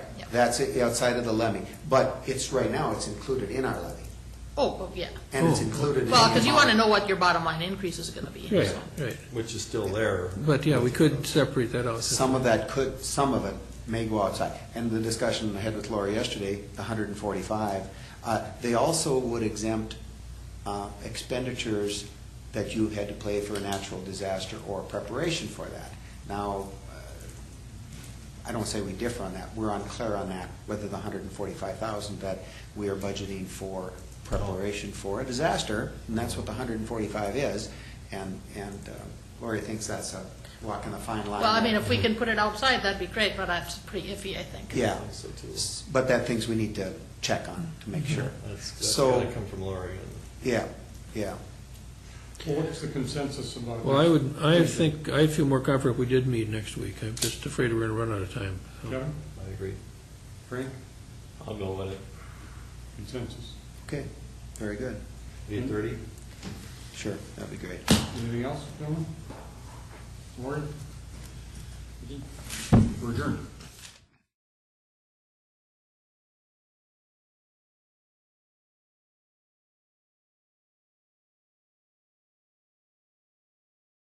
That's it, outside of the levy. But it's, right now, it's included in our levy. Oh, oh, yeah. And it's Oh. included in. Well, because the you want to amount. know what your bottom line increase is going to be. Right, so. right. which is still there. But, yeah, we could separate that out. Some of that could, some of it may go outside. And the discussion I had with Lori yesterday, the hundred and forty-five, uh, they also would exempt, uh, expenditures that you had to play for a natural disaster or preparation for that. Now, uh, I don't say we differ on that, we're unclear on that, whether the hundred and forty-five thousand that we are budgeting for preparation for a disaster, and that's what the hundred and forty-five is, and, and uh, Lori thinks that's a walk in the fine line. Well, I mean, if we can put it outside, that'd be great, but that's pretty iffy, I think. Yeah, So too. S- but that things we need to check on to make sure. That's, that's So, gotta come from Lori. and- yeah, yeah. Well, what's the consensus about? Well, I would, I think, I feel more confident if we did meet next week. I'm just afraid we're going to run out of time. so. Kevin, I agree. Frank, I'll go with it. consensus. Okay, very good. Eight thirty? Sure, that'd be great. Anything else, gentlemen? Lori,